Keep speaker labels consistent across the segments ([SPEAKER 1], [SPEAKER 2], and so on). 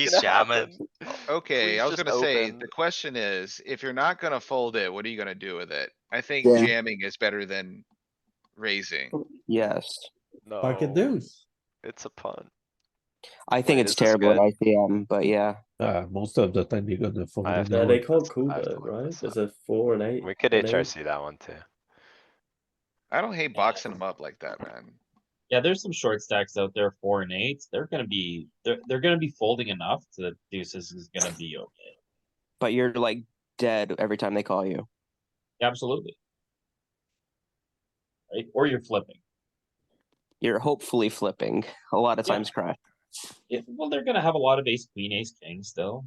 [SPEAKER 1] He's jamming.
[SPEAKER 2] Oh, Okay,
[SPEAKER 3] He's
[SPEAKER 2] I was
[SPEAKER 3] just
[SPEAKER 2] gonna say,
[SPEAKER 3] open.
[SPEAKER 2] the question is, if you're not gonna fold it, what are you gonna do with it? I think
[SPEAKER 4] Yeah.
[SPEAKER 2] jamming is better than raising.
[SPEAKER 3] Oh.
[SPEAKER 4] Yes,
[SPEAKER 3] No.
[SPEAKER 5] Pocket deuce.
[SPEAKER 3] It's a punt.
[SPEAKER 4] I think
[SPEAKER 3] Wait,
[SPEAKER 4] it's
[SPEAKER 3] is this
[SPEAKER 4] terrible at
[SPEAKER 3] good?
[SPEAKER 4] ICM, but yeah,
[SPEAKER 5] Uh, most of the time you're gonna fold.
[SPEAKER 3] I have
[SPEAKER 5] it
[SPEAKER 3] no
[SPEAKER 6] Yeah,
[SPEAKER 5] anyway.
[SPEAKER 6] they can't call
[SPEAKER 3] I have to
[SPEAKER 6] that,
[SPEAKER 3] look
[SPEAKER 6] right?
[SPEAKER 3] this
[SPEAKER 6] There's
[SPEAKER 3] up.
[SPEAKER 6] a four and eight.
[SPEAKER 3] We could
[SPEAKER 6] and eight.
[SPEAKER 3] HRC that one too.
[SPEAKER 2] I don't hate boxing them up like that, man.
[SPEAKER 7] Yeah, there's some short stacks out there, four and eights. They're gonna be, they're, they're gonna be folding enough to the deuces is gonna be okay.
[SPEAKER 4] but you're like dead every time they call you.
[SPEAKER 7] Absolutely. Right? Or you're flipping.
[SPEAKER 4] You're hopefully flipping a lot of
[SPEAKER 7] Yeah.
[SPEAKER 4] times. Crash.
[SPEAKER 7] Yeah, well, they're gonna have a lot of ace, queen, ace, king still.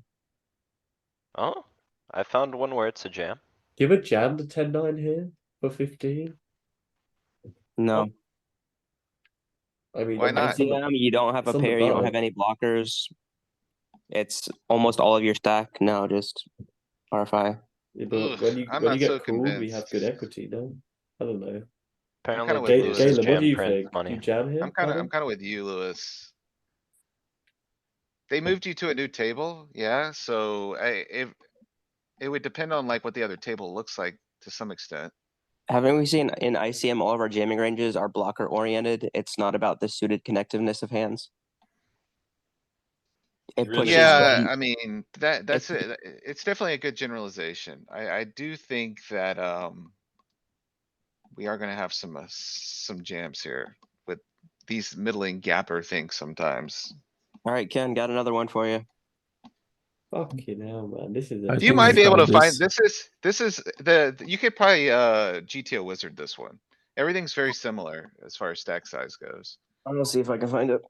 [SPEAKER 3] Oh, I found one where it's a jam.
[SPEAKER 6] Give a jam to 10 9 here for 15.
[SPEAKER 4] No,
[SPEAKER 6] I mean,
[SPEAKER 2] Why
[SPEAKER 6] I'm
[SPEAKER 2] not?
[SPEAKER 6] sort of-
[SPEAKER 4] ICM, you don't have a
[SPEAKER 6] it's on the
[SPEAKER 4] pair. You don't
[SPEAKER 6] button.
[SPEAKER 4] have any blockers. It's almost all of your stack. No, just RFI.
[SPEAKER 6] Yeah, but
[SPEAKER 2] Ugh,
[SPEAKER 6] when you,
[SPEAKER 2] I'm
[SPEAKER 6] when
[SPEAKER 2] not
[SPEAKER 6] you get
[SPEAKER 2] so
[SPEAKER 6] cooled, we
[SPEAKER 2] convinced.
[SPEAKER 6] have good equity, no? I don't know.
[SPEAKER 2] kinda
[SPEAKER 3] Apparently
[SPEAKER 2] with
[SPEAKER 6] Ga-
[SPEAKER 2] Lewis.
[SPEAKER 3] deuces
[SPEAKER 6] Galen, what do
[SPEAKER 3] jam
[SPEAKER 6] you
[SPEAKER 3] print
[SPEAKER 6] think? You
[SPEAKER 3] money.
[SPEAKER 6] jam here?
[SPEAKER 2] I'm kinda,
[SPEAKER 6] Adam?
[SPEAKER 2] I'm kinda with you, Lewis. They moved you to a new table, yeah, so I, if, it would depend on like what the other table looks like to some extent.
[SPEAKER 4] Haven't we seen in ICM all of our jamming ranges are blocker oriented? It's not about the suited connectiveness of hands. It
[SPEAKER 7] Really?
[SPEAKER 4] pushes
[SPEAKER 2] Yeah,
[SPEAKER 4] the-
[SPEAKER 2] I mean, that, that's,
[SPEAKER 4] It's-
[SPEAKER 2] a- it's definitely a good generalization. I, I do think that, um. We are gonna have some, uh, some jams here with these middling gapper things sometimes.
[SPEAKER 4] All right, Ken, got another one for you.
[SPEAKER 6] Fucking hell, man. This is
[SPEAKER 5] I
[SPEAKER 6] a.
[SPEAKER 5] think
[SPEAKER 2] You might be
[SPEAKER 5] we
[SPEAKER 2] able to
[SPEAKER 5] found
[SPEAKER 2] find,
[SPEAKER 5] this.
[SPEAKER 2] this is, this is the, you could probably, uh, GTO wizard this one. Everything's very similar as far as stack size goes.
[SPEAKER 4] I'm gonna see if I can find it.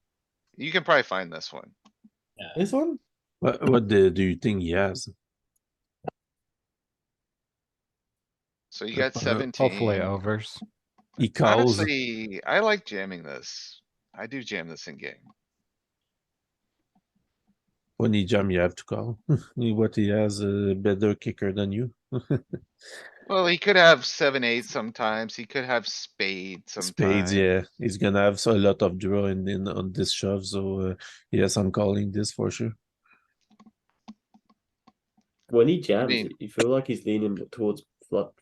[SPEAKER 2] You can probably find this one.
[SPEAKER 5] This one? What, what do do you think he has?
[SPEAKER 2] So you got
[SPEAKER 5] Uh,
[SPEAKER 2] seventeen.
[SPEAKER 8] Hopefully overs.
[SPEAKER 5] He calls,
[SPEAKER 2] Honestly, I like jamming this. I do jam this in game.
[SPEAKER 5] when he jam, you have to call. What he has, a better kicker than you.
[SPEAKER 2] Well, he could have seven, eight sometimes. He could have spade sometimes.
[SPEAKER 5] Spades, yeah, he's gonna have so- a lot of draw in, in on this shove, so uh, yes, I'm calling this for sure.
[SPEAKER 6] When he jams,
[SPEAKER 2] mean-
[SPEAKER 6] you feel like he's leaning towards flop.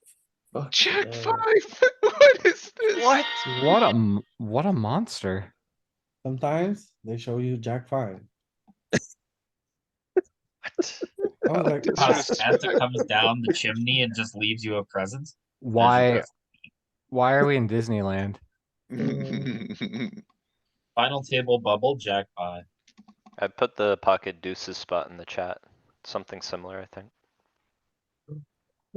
[SPEAKER 6] Fuck.
[SPEAKER 2] Check five. What is this? What?
[SPEAKER 8] What a, m- what a monster.
[SPEAKER 5] Sometimes they show you jack five.
[SPEAKER 3] What?
[SPEAKER 5] I was like,
[SPEAKER 7] How Santa comes down the chimney and just leaves you a present.
[SPEAKER 8] Why, why are we in Disneyland?
[SPEAKER 7] Final table bubble jackpot.
[SPEAKER 3] I put the pocket deuces spot in the chat. Something similar, I think.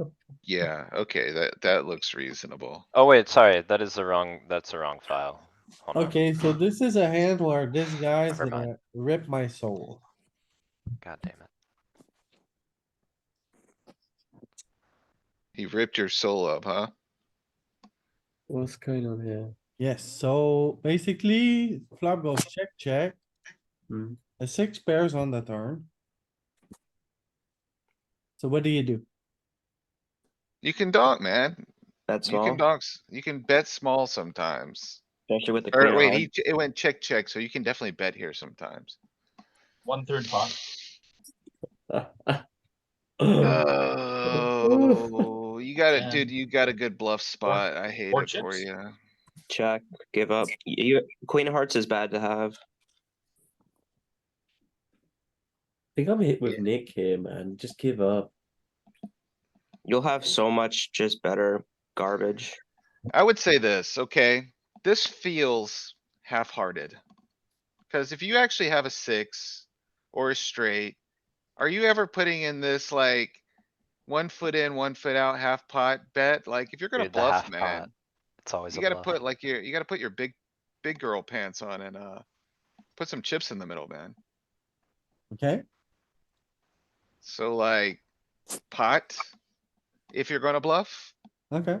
[SPEAKER 2] Yeah, okay, that, that looks reasonable.
[SPEAKER 3] Oh wait, sorry, that is the wrong, that's the wrong file. Hold on.
[SPEAKER 5] okay, so this is a hand where this guy's
[SPEAKER 3] Never mind.
[SPEAKER 5] gonna rip my soul.
[SPEAKER 3] God damn it.
[SPEAKER 2] He ripped your soul up, huh?
[SPEAKER 6] What's going on here?
[SPEAKER 5] Yes, so basically flop goes check, check.
[SPEAKER 6] Hmm.
[SPEAKER 5] The six pairs on the turn. So what do you do?
[SPEAKER 2] You can donk, man.
[SPEAKER 4] That's
[SPEAKER 2] You can
[SPEAKER 4] all.
[SPEAKER 2] donks, you can bet small sometimes.
[SPEAKER 4] Especially with the
[SPEAKER 2] Or
[SPEAKER 4] queen
[SPEAKER 2] wait,
[SPEAKER 4] high.
[SPEAKER 2] he, ch- it went check, check, so you can definitely bet here sometimes.
[SPEAKER 7] One third pot.
[SPEAKER 2] Oh, you got it,
[SPEAKER 7] Yeah.
[SPEAKER 2] dude, you got a good bluff spot. I hate
[SPEAKER 7] or
[SPEAKER 2] it for
[SPEAKER 7] chips.
[SPEAKER 2] you.
[SPEAKER 4] check, give up. You, queen of hearts is bad to have.
[SPEAKER 6] I think I'm hit with Nick here, man. Just give up.
[SPEAKER 4] You'll have so much just better garbage.
[SPEAKER 2] I would say this, okay? This feels half-hearted. Cuz if you actually have a six or a straight, are you ever putting in this like one foot in, one foot out, half pot bet? Like, if you're gonna
[SPEAKER 3] Dude, the
[SPEAKER 2] bluff,
[SPEAKER 3] half pot.
[SPEAKER 2] man,
[SPEAKER 3] It's always a
[SPEAKER 2] you gotta
[SPEAKER 3] bluff.
[SPEAKER 2] put like your, you gotta put your big, big girl pants on and, uh, put some chips in the middle, man.
[SPEAKER 5] Okay,
[SPEAKER 2] So like, pot, if you're gonna bluff,
[SPEAKER 5] okay.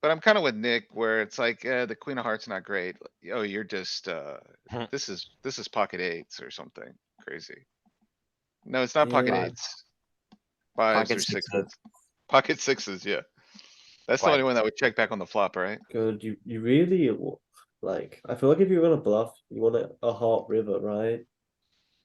[SPEAKER 2] But I'm kind of with Nick where it's like, uh, the queen of hearts not great. Oh, you're just, uh,
[SPEAKER 3] Hmm.
[SPEAKER 2] this is, this is pocket eights or something crazy. No, it's not pocket
[SPEAKER 6] Yeah.
[SPEAKER 2] eights. Fives
[SPEAKER 4] Pocket
[SPEAKER 2] or
[SPEAKER 4] sixes.
[SPEAKER 2] sixes. Pocket sixes, yeah. That's the
[SPEAKER 3] Why?
[SPEAKER 2] only one that would check back on the flop, right?
[SPEAKER 6] God, you you really w- like. I feel like if you're gonna bluff, you want a, a heart river, right?